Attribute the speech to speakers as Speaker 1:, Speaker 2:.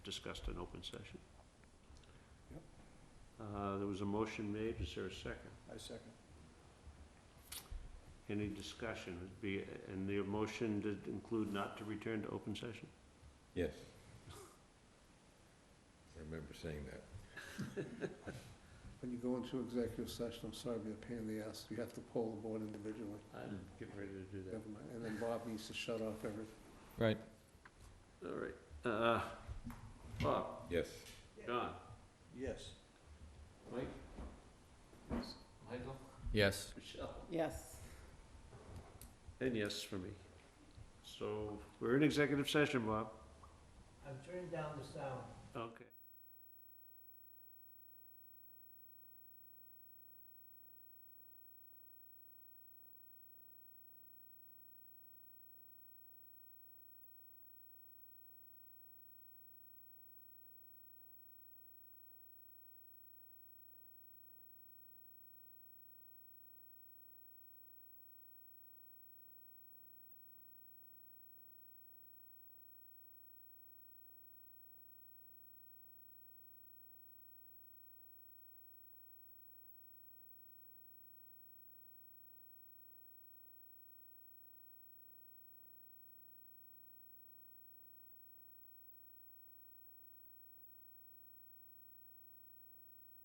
Speaker 1: discussed in open session.
Speaker 2: Yep.
Speaker 1: Uh, There was a motion made, is there a second?
Speaker 2: I second.
Speaker 1: Any discussion? It'd be- And the motion did include not to return to open session?
Speaker 3: Yes. I remember saying that.
Speaker 2: When you go into executive session, I'm sorry to be a pain in the ass, you have to poll the board individually.
Speaker 1: I'm getting ready to do
Speaker 2: Never mind. And then Bob needs to shut off everything.
Speaker 4: Right.
Speaker 1: that. All right. Uh, Bob?
Speaker 3: Yes.
Speaker 1: John?
Speaker 2: Yes.
Speaker 1: Mike? Michael?
Speaker 4: Yes.
Speaker 1: Michelle?
Speaker 5: Yes.
Speaker 1: And yes for me. So we're in executive session, Bob.
Speaker 5: I'm turning down the sound.
Speaker 1: Okay.